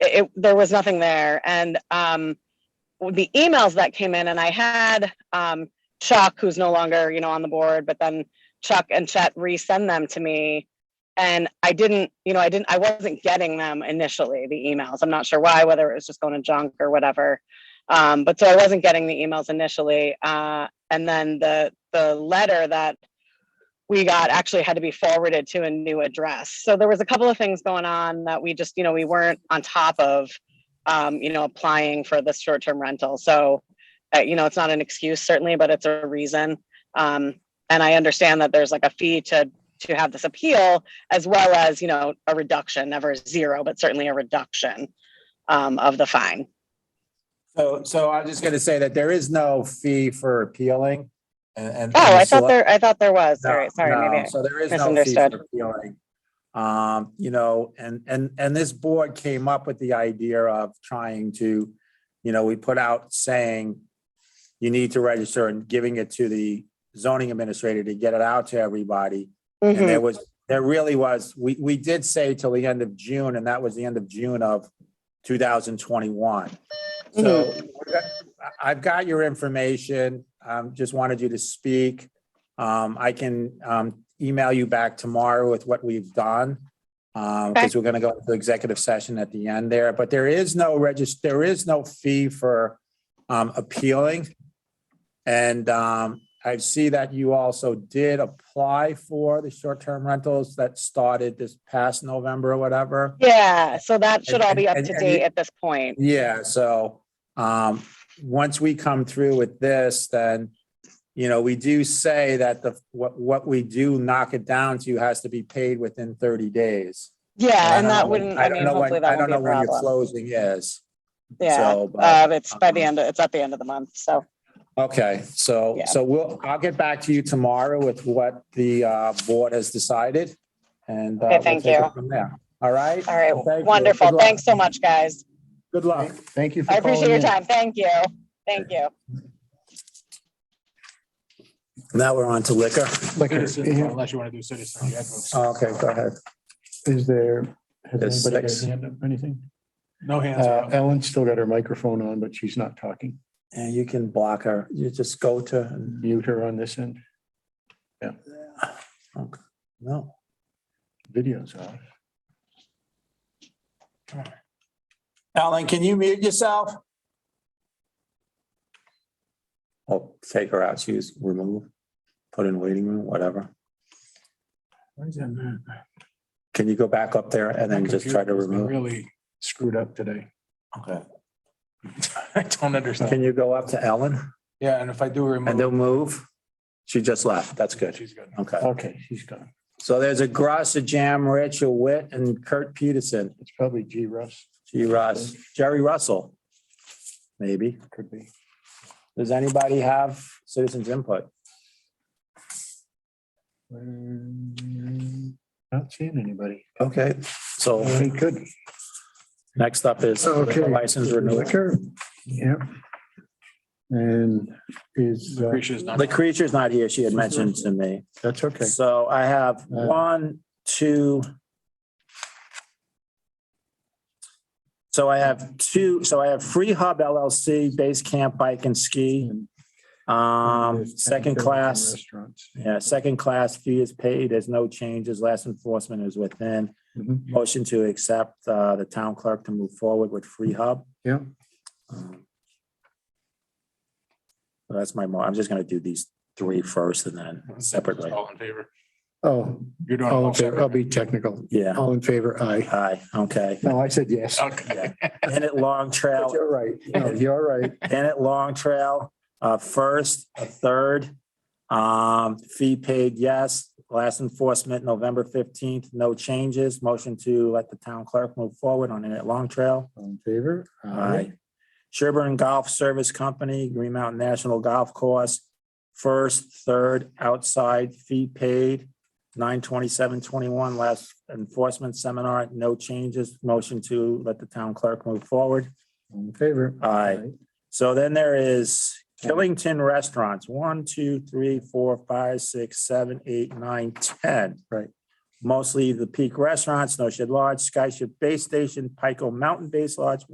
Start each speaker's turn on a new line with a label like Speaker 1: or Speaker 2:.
Speaker 1: it, there was nothing there. And um, the emails that came in, and I had um, Chuck, who's no longer, you know, on the board, but then Chuck and Chet resend them to me. And I didn't, you know, I didn't, I wasn't getting them initially, the emails. I'm not sure why, whether it was just going to junk or whatever. Um, but so I wasn't getting the emails initially. Uh, and then the, the letter that we got actually had to be forwarded to a new address. So there was a couple of things going on that we just, you know, we weren't on top of, um, you know, applying for this short-term rental. So, uh, you know, it's not an excuse certainly, but it's a reason. Um, and I understand that there's like a fee to, to have this appeal as well as, you know, a reduction, never zero, but certainly a reduction um, of the fine.
Speaker 2: So, so I'm just gonna say that there is no fee for appealing and. and-
Speaker 1: Oh, I
Speaker 2: and the
Speaker 1: thought
Speaker 2: select-
Speaker 1: there, I thought there was. All
Speaker 2: No,
Speaker 1: right, sorry, maybe.
Speaker 2: no,
Speaker 1: I-
Speaker 2: So there is no fee
Speaker 1: misunderstood.
Speaker 2: for appealing. Um, you know, and, and, and this board came up with the idea of trying to, you know, we put out saying you need to register and giving it to the zoning administrator to get it out to everybody. And
Speaker 1: Mhm.
Speaker 2: there was, there really was, we, we did say till the end of June, and that was the end of June of two thousand twenty-one. So we're go- I- I've got your information. Um, just wanted you to speak. Um, I can, um, email you back tomorrow with what we've done. Um, because we're gonna go into executive session at the end there, but there is no regis, there is no fee for, um, appealing. And, um, I see that you also did apply for the short-term rentals that started this past November or whatever.
Speaker 1: Yeah, so that should all be up
Speaker 2: and-
Speaker 1: to
Speaker 2: and you-
Speaker 1: date at this point.
Speaker 2: Yeah, so, um, once we come through with this, then, you know, we do say that the, what, what we do knock it down to has to be paid within thirty days.
Speaker 1: Yeah, and
Speaker 2: I don't
Speaker 1: that
Speaker 2: know-
Speaker 1: wouldn't, I
Speaker 2: don't
Speaker 1: mean,
Speaker 2: know when-
Speaker 1: hopefully that
Speaker 2: I
Speaker 1: won't
Speaker 2: don't
Speaker 1: be
Speaker 2: know
Speaker 1: a
Speaker 2: when your
Speaker 1: problem.
Speaker 2: Closing is.
Speaker 1: Yeah,
Speaker 2: So,
Speaker 1: uh,
Speaker 2: but-
Speaker 1: it's by the
Speaker 2: um,
Speaker 1: end, of- it's at the end of the month, so,
Speaker 2: Okay, so,
Speaker 1: Yeah.
Speaker 2: so we'll, I'll get back to you tomorrow with what the, uh, board has decided. And. uh,
Speaker 1: Okay,
Speaker 2: we'll
Speaker 1: thank
Speaker 2: take it
Speaker 1: you.
Speaker 2: From there, all right?
Speaker 1: all right,
Speaker 2: Well, thank you. Good
Speaker 1: wonderful.
Speaker 2: luck.
Speaker 1: Thanks so much, guys.
Speaker 2: Good luck.
Speaker 3: Uh, Thank you for
Speaker 1: I
Speaker 3: calling
Speaker 1: appreciate your
Speaker 3: in.
Speaker 1: time. Thank you. Thank you.
Speaker 2: Now we're on to liquor.
Speaker 3: Like,
Speaker 4: Citizen,
Speaker 3: is
Speaker 4: Unless you want to do citizen. you have to-
Speaker 2: Oh, Okay, go ahead.
Speaker 3: there,
Speaker 2: There's
Speaker 3: has anybody got
Speaker 2: six.
Speaker 3: a hand up, anything?
Speaker 4: No hands
Speaker 3: Uh,
Speaker 4: up.
Speaker 3: Ellen's still got her microphone on, but she's not talking.
Speaker 2: And you can block her, you just go to,
Speaker 3: Mute her on this end.
Speaker 2: Okay. no,
Speaker 3: Video's on.
Speaker 2: Alan, can you mute yourself? Oh, take her out, she's removed, put in waiting room, whatever. Can you go back up there and then just try to
Speaker 4: Computer's been
Speaker 2: remove?
Speaker 4: Really screwed up today.
Speaker 2: Okay.
Speaker 4: I don't understand.
Speaker 2: Can you go up to Ellen
Speaker 4: Yeah, and if I do
Speaker 2: and
Speaker 4: remove.
Speaker 2: they'll move? She just left, that's good,
Speaker 4: She's good.
Speaker 2: okay.
Speaker 3: Okay, she's gone.
Speaker 2: So there's a Grasa Jam, Rachel Witt and Kurt Peterson,
Speaker 3: It's probably G Russ,
Speaker 2: G. Russ, Jerry Russell, maybe.
Speaker 3: could be.
Speaker 2: Does anybody have citizens input?
Speaker 3: Not seeing anybody.
Speaker 2: Okay. So
Speaker 3: They could.
Speaker 2: next up is
Speaker 3: Okay.
Speaker 2: license renewal.
Speaker 3: Liquor. Yep. And is, uh,
Speaker 4: Lucretia's not.
Speaker 2: The creature's not here. She had mentioned to me.
Speaker 3: that's okay. Uh,
Speaker 2: So I have one, two. So I have two, so I have Free Hub LLC, Base Camp Bike and Ski. Um,
Speaker 3: There's
Speaker 2: second
Speaker 3: 10
Speaker 2: class,
Speaker 3: Restaurants.
Speaker 2: yeah, second class fee is paid. There's no changes. Last enforcement is within.
Speaker 3: Mhm.
Speaker 2: Motion to accept uh, the town clerk to move forward with Free Hub.
Speaker 3: Yeah.
Speaker 2: Um, so That's my, mo- I'm just gonna do these three first and then separately.
Speaker 4: All in favor.
Speaker 3: Oh,
Speaker 4: You're doing.
Speaker 3: all
Speaker 4: all
Speaker 3: in favor, I'll
Speaker 4: separate.
Speaker 3: be technical.
Speaker 2: Yeah,
Speaker 3: All in favor, aye.
Speaker 2: aye, okay.
Speaker 3: No, I said yes.
Speaker 4: Okay.
Speaker 2: Bennett Long
Speaker 3: But
Speaker 2: Trail,
Speaker 3: You're right. No, you're right.
Speaker 2: Bennett Long Trail, uh, first, a third. Um, Fee paid, yes. Last enforcement, November fifteenth, no changes. Motion to let the town clerk move forward on Bennett Long Trail.
Speaker 3: All in favor?
Speaker 2: Aye. Sherburne Golf Service Company, Green Mountain National Golf Course, first, third, outside, fee paid, nine twenty-seven twenty-one, last enforcement seminar, no changes, motion to let the town clerk move forward.
Speaker 3: All in favor?
Speaker 2: Aye. So then there is Killington Restaurants, one, two, three, four, five, six, seven, eight, nine, ten.
Speaker 3: Right.
Speaker 2: mostly the Peak Restaurants, Snow Shed Lodge, Sky Ship Base Station, Pico Mountain Base Lodge,